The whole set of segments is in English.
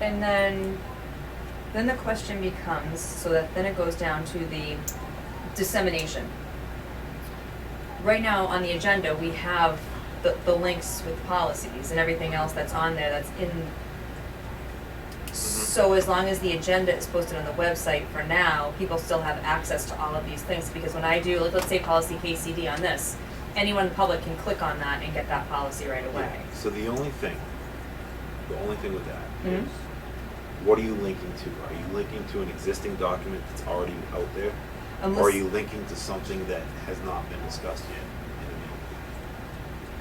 And then, then the question becomes, so that then it goes down to the dissemination. Right now on the agenda, we have the, the links with policies and everything else that's on there that's in. Mm-hmm. So as long as the agenda is posted on the website for now, people still have access to all of these things, because when I do, like, let's say policy KCD on this, anyone in the public can click on that and get that policy right away. So the only thing, the only thing with that is, Mhm. what are you linking to? Are you linking to an existing document that's already out there? Unless- Or are you linking to something that has not been discussed yet?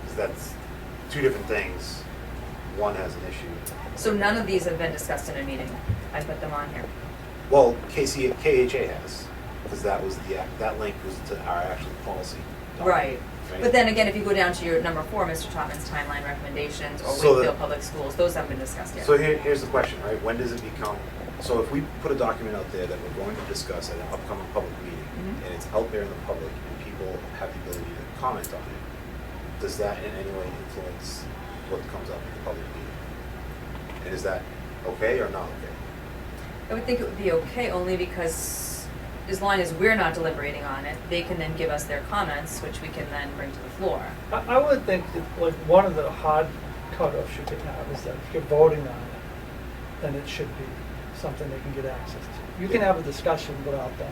Because that's two different things. One has an issue. So none of these have been discussed in a meeting. I put them on here. Well, KC, KHA has, because that was the, act- that link was to our actual policy. document, Oh. right? But then again, if you go down to your number four, Mr. Topman's timeline recommendations or So the- Wakefield Public Schools, those haven't been discussed yet. So here, here's the question, right? When does it become, so if we put a document out there that we're going to discuss at an upcoming public meeting, Mhm. and it's out there in the public, and people have the ability to comment on it, does that in any way influence what comes up at the public meeting? And is that okay or not okay? I would think it would be okay only because as long as we're not deliberating on it, they can then give us their comments, which we can then bring to the floor. I, I would think that like one of the hard cutoffs you could have is that if you're voting on it, then it should be something they can get access to. You can Yeah. have a discussion without that.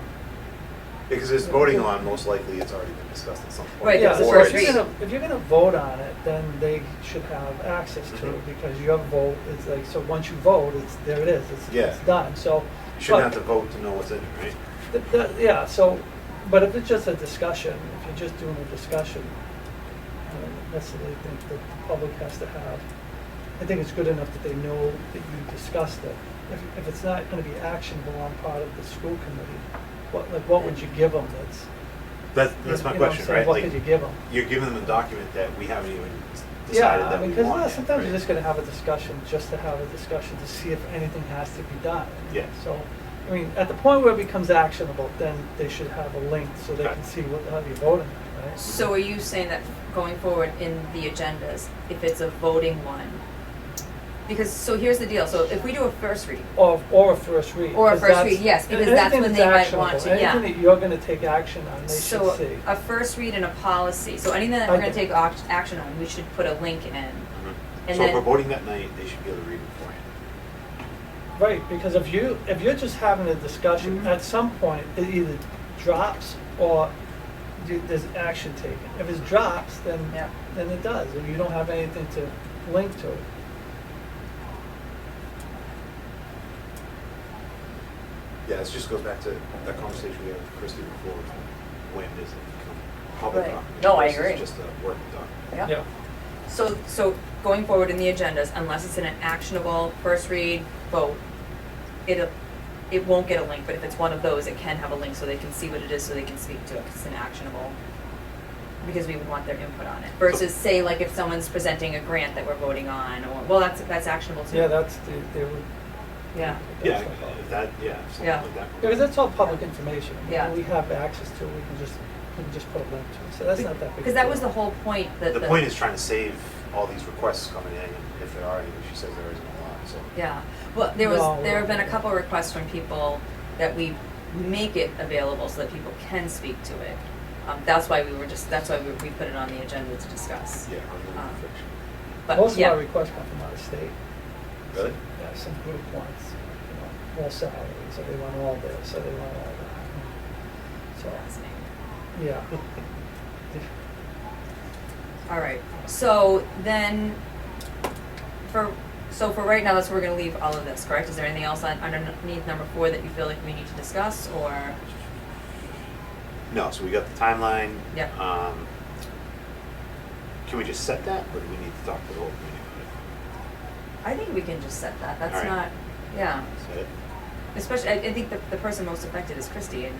Because it's voting on, most likely it's already been discussed at some point. Right, Yeah, it's a Or so if first it's- you're gonna, if you're gonna vote on it, then they should have access to Mhm. it because your vote is like, so once you vote, it's, there it is, it's, Yeah. it's done, so. You shouldn't have but- to vote to know what's in it, right? Th- th- Yeah, so, but if it's just a discussion, if you're just doing a discussion, I don't necessarily think that the public has to have, I think it's good enough that they know that you discussed it. If, if it's not gonna be actionable on part of the school committee, what, like, what would you give them that's? That's, that's my you know what I'm question, saying? right? What Like, could you give them? You're giving them a document that we haven't even decided Yeah, that we want. because uh, yet, sometimes right? you're just gonna have a discussion, just to have a discussion to see if anything has to be done. Yeah. So, I mean, at the point where it becomes actionable, then they should have a link so they Okay. can see what the hell you're voting on, right? So are you saying that going forward in the agendas, if it's a voting one? Because, so here's the deal, so if we do a first read, Or, or a first read. Or a 'cause first that's- read, yes, because that's anything when that's they might want actionable, to, yeah. Anything that you're gonna take action on, they should see. So uh, a first read and a policy, so anything that we're gonna Okay. take oct- action on, we should put a link in. Mhm. And So if then- we're voting that night, they should be able to read it beforehand. Right, because if you, if you're just having a discussion, Mhm. at some point, it either drops or you- there's action taken. If it drops, then, Yeah. then it does, and you don't have anything to link to it. Yeah, this just goes back to that conversation we had with Christie before, when does it become public Right. document? No, I versus agree. just a working document. So, so going forward in the agendas, unless it's in an actionable first read vote, it, it won't get a link, but if it's one of those, it can have a link so they can see what it is, so they can speak to it, 'cause it's an actionable. Because we would want their input on it versus say like if someone's presenting a grant that we're voting on or, well, that's, that's actionable too. Yeah, that's, the they would. Yeah. Yeah, that's the- if that, yeah, if something Yeah. like that. Because that's all public information. I mean, Yeah. We have access to it, we can just, we can just put a link to it, so that's not that big. Cause a that deal. was the whole point that The point is trying to save all these requests coming in, and if there are any, she says there isn't a lot, so. Yeah, well, there was, No. there have been a couple requests from people that we make it available so that people can speak to it. Um, that's why we were just, that's why we, we put it on the agenda to discuss. Yeah, I'm Um, gonna fiction. But, Most of yeah, our requests come from out of state, Really? yeah, some group wants, you know, all salaries, so they want all this, so they want all that. So, fascinating. yeah. All right, so then, for, so for right now, that's where we're gonna leave all of this, correct? Is there anything else on, underneath number four that you feel like we need to discuss, or? No, so we got the timeline. Yeah. Um, can we just set that, or do we need to talk to the whole community about I think we can just set that, All that's right. not, yeah, it? Set it? especially, I, I think the, the person most affected is Christie, and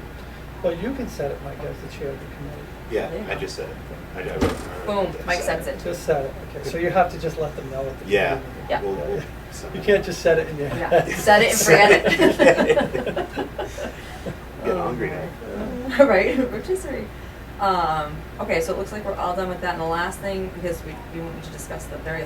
Well, you can set it, Mike, as the chair of the committee. Yeah, I Yeah. just said it. I- I wrote- I wrote boom, that. Mike Set sets it. Just set it, okay, so you have to just let them know at the Yeah. beginning. Yeah. We'll- we'll send You it. can't just set it in your Yeah, head. set it and forget it. Get Oh, hungry now. my. right, rotisserie. Um, okay, so it looks like we're all done with that. And the last thing, because we, we want to discuss the very